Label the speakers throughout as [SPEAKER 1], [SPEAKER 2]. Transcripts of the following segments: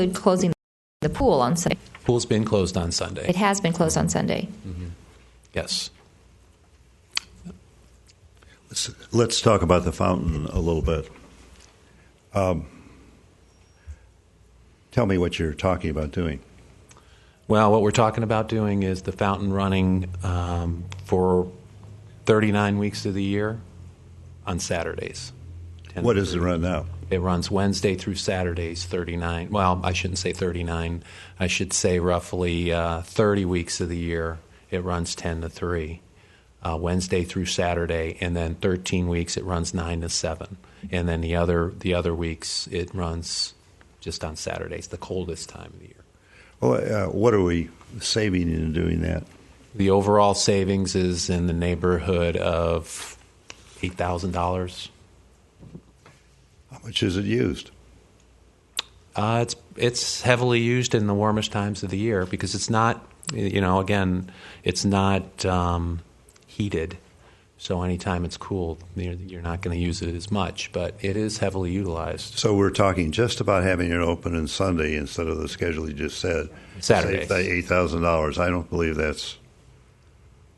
[SPEAKER 1] include closing the pool on Sunday.
[SPEAKER 2] Pool's been closed on
[SPEAKER 1] It
[SPEAKER 2] Sunday,
[SPEAKER 1] has been closed on Sunday.
[SPEAKER 2] yes.
[SPEAKER 3] Let's, let's talk about the fountain a little bit. Um, tell me what you're talking about doing.
[SPEAKER 2] Well, what we're talking about doing is the fountain running um, for 39 weeks of the year on Saturdays. 10
[SPEAKER 3] What is it right now?
[SPEAKER 2] It runs Wednesday through Saturdays, 39. Well, I shouldn't say 39. I should say roughly uh, 30 weeks of the year. It runs 10 to 3, uh, Wednesday through Saturday, and then 13 weeks it runs 9 to 7, and then the other the other weeks it runs just on Saturdays, the coldest time of the year.
[SPEAKER 3] Well, uh, what are we saving in doing that?
[SPEAKER 2] The overall savings is in the neighborhood of eight thousand dollars.
[SPEAKER 3] How much is it used?
[SPEAKER 2] Uh, it's it's heavily used in the warmest times of the year because it's not you know again it's not um, heated, so anytime it's cool you're, you're not going to use it as much. But it is heavily utilized.
[SPEAKER 3] So we're talking just about having it open on Sunday instead of the schedule you just said.
[SPEAKER 2] Saturdays.
[SPEAKER 3] Save that eight thousand dollars. I don't believe that's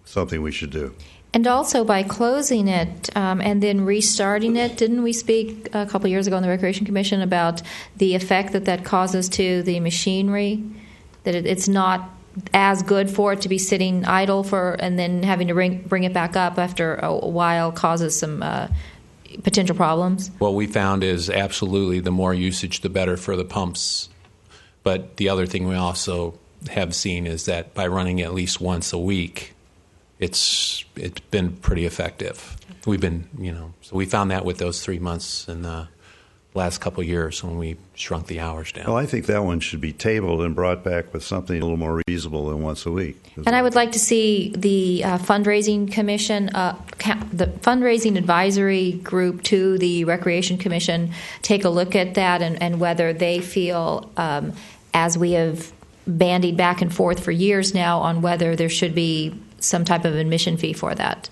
[SPEAKER 3] something we should do.
[SPEAKER 1] And also by closing it um, and then restarting it, didn't we speak a couple years ago in the Recreation Commission about the effect that that causes to the machinery? That it, it's not as good for it to be sitting idle for and then having to bring, bring it back up after a while causes some uh, potential problems?
[SPEAKER 2] What we found is absolutely the more usage, the better for the pumps. But the other thing we also have seen is that by running at least once a week, it's it's been pretty effective. We've been, you know, so we found that with those three months in the last couple of years when we shrunk the hours down.
[SPEAKER 3] Well, I think that one should be tabled and brought back with something a little more reasonable than once a week.
[SPEAKER 1] And I would like to see the uh, fundraising commission, uh, ca- the fundraising advisory group to the Recreation Commission, take a look at that and, and whether they feel, um, as we have bandied back and forth for years now, on whether there should be some type of admission fee for that.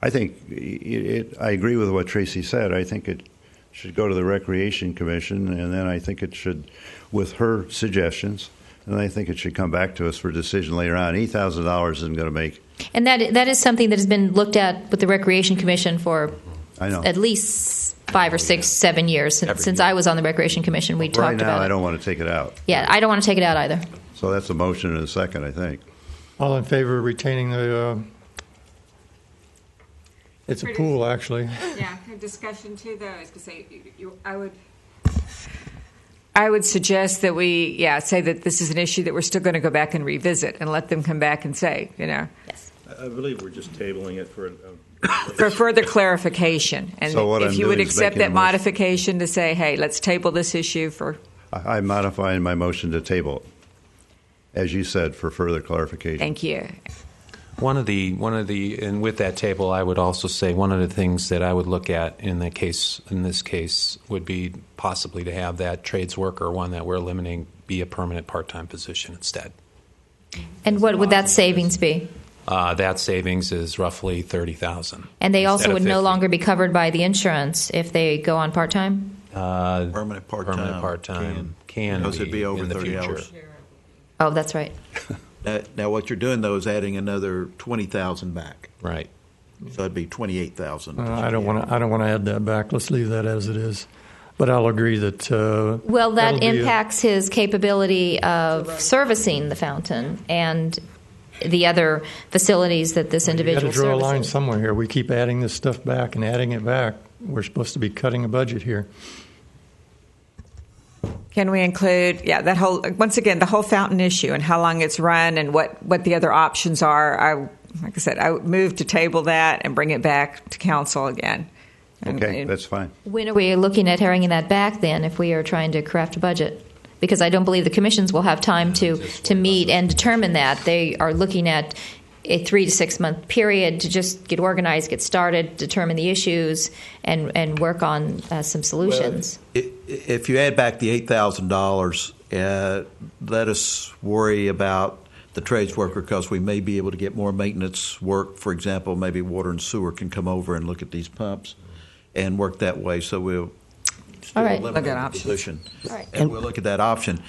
[SPEAKER 3] I think it, it, I agree with what Tracy said. I think it should go to the Recreation Commission, and then I think it should, with her suggestions, and I think it should come back to us for decision later on. Eight thousand dollars isn't going to make.
[SPEAKER 1] And that that is something that has been looked at with the Recreation Commission for
[SPEAKER 3] I know.
[SPEAKER 1] at least five or six, seven years since,
[SPEAKER 2] Every
[SPEAKER 1] since
[SPEAKER 2] year.
[SPEAKER 1] I was on the Recreation Commission. We
[SPEAKER 3] right
[SPEAKER 1] talked
[SPEAKER 3] now,
[SPEAKER 1] about
[SPEAKER 3] I
[SPEAKER 1] it.
[SPEAKER 3] don't want to take it out.
[SPEAKER 1] yeah, I don't want to take it out either.
[SPEAKER 3] So that's a motion and a second. I think.
[SPEAKER 4] All in favor of retaining the, uh, it's a pool, actually.
[SPEAKER 5] Yeah, a discussion too, though, I was gonna say, you- you, I would. I would suggest that we, yeah, say that this is an issue that we're still gonna go back and revisit and let them come back and say, you know,
[SPEAKER 6] I believe we're just tabling it for, um, a-
[SPEAKER 5] for further clarification. And
[SPEAKER 3] So what
[SPEAKER 5] if
[SPEAKER 3] I'm
[SPEAKER 5] you would
[SPEAKER 3] doing is
[SPEAKER 5] accept
[SPEAKER 3] making a
[SPEAKER 5] that
[SPEAKER 3] motion.
[SPEAKER 5] modification to say, hey, let's table this issue for,
[SPEAKER 3] I, I'm modifying my motion to table, it, as you said, for further clarification.
[SPEAKER 5] thank you.
[SPEAKER 2] One of the one of the and with that table, I would also say one of the things that I would look at in the case in this case would be possibly to have that trades worker one that we're limiting be a permanent part time position instead.
[SPEAKER 1] And what would that savings be?
[SPEAKER 2] Uh, that savings is roughly thirty thousand.
[SPEAKER 1] And they also
[SPEAKER 2] Instead of
[SPEAKER 1] would no
[SPEAKER 2] 50.
[SPEAKER 1] longer be covered by the insurance if they go on part time?
[SPEAKER 6] permanent part-time.
[SPEAKER 2] permanent part time can,
[SPEAKER 6] Those would be over
[SPEAKER 2] in the
[SPEAKER 6] 30
[SPEAKER 2] future.
[SPEAKER 6] hours.
[SPEAKER 1] Oh, that's right.
[SPEAKER 6] Now- Now, what you're doing, though, is adding another 20,000 back.
[SPEAKER 2] Right.
[SPEAKER 6] So it'd be 28,000.
[SPEAKER 4] Uh, I don't want to, I don't want to add that back. Let's leave that as it is. But I'll agree that, uh.
[SPEAKER 1] Well, that
[SPEAKER 4] that'll be a-
[SPEAKER 1] impacts his capability of servicing the fountain and the other facilities that this
[SPEAKER 4] You got to
[SPEAKER 1] individual
[SPEAKER 4] draw a line
[SPEAKER 1] services.
[SPEAKER 4] somewhere here. We keep adding this stuff back and adding it back. We're supposed to be cutting a budget here.
[SPEAKER 5] Can we include, yeah, that whole, once again, the whole fountain issue and how long it's run and what, what the other options are. I, like I said, I would move to table that and bring it back to council again. And-
[SPEAKER 3] Okay,
[SPEAKER 5] and-
[SPEAKER 3] that's fine.
[SPEAKER 1] When are we looking at herring that back then if we are trying to craft a budget? Because I don't believe the commissions will have time to, to meet and determine that. They are looking at a three to six month period to just get organized, get started, determine the issues, and, and work on uh, some solutions.
[SPEAKER 6] I- If you add back the $8,000, uh, let us worry about the trades worker because we may be able to get more maintenance work. For example, maybe water and sewer can come over and look at these pumps and work that way. So we'll still
[SPEAKER 1] right.
[SPEAKER 6] eliminate
[SPEAKER 5] Look at
[SPEAKER 6] the
[SPEAKER 5] options.
[SPEAKER 6] position.
[SPEAKER 1] All right.
[SPEAKER 6] And we'll look at that option.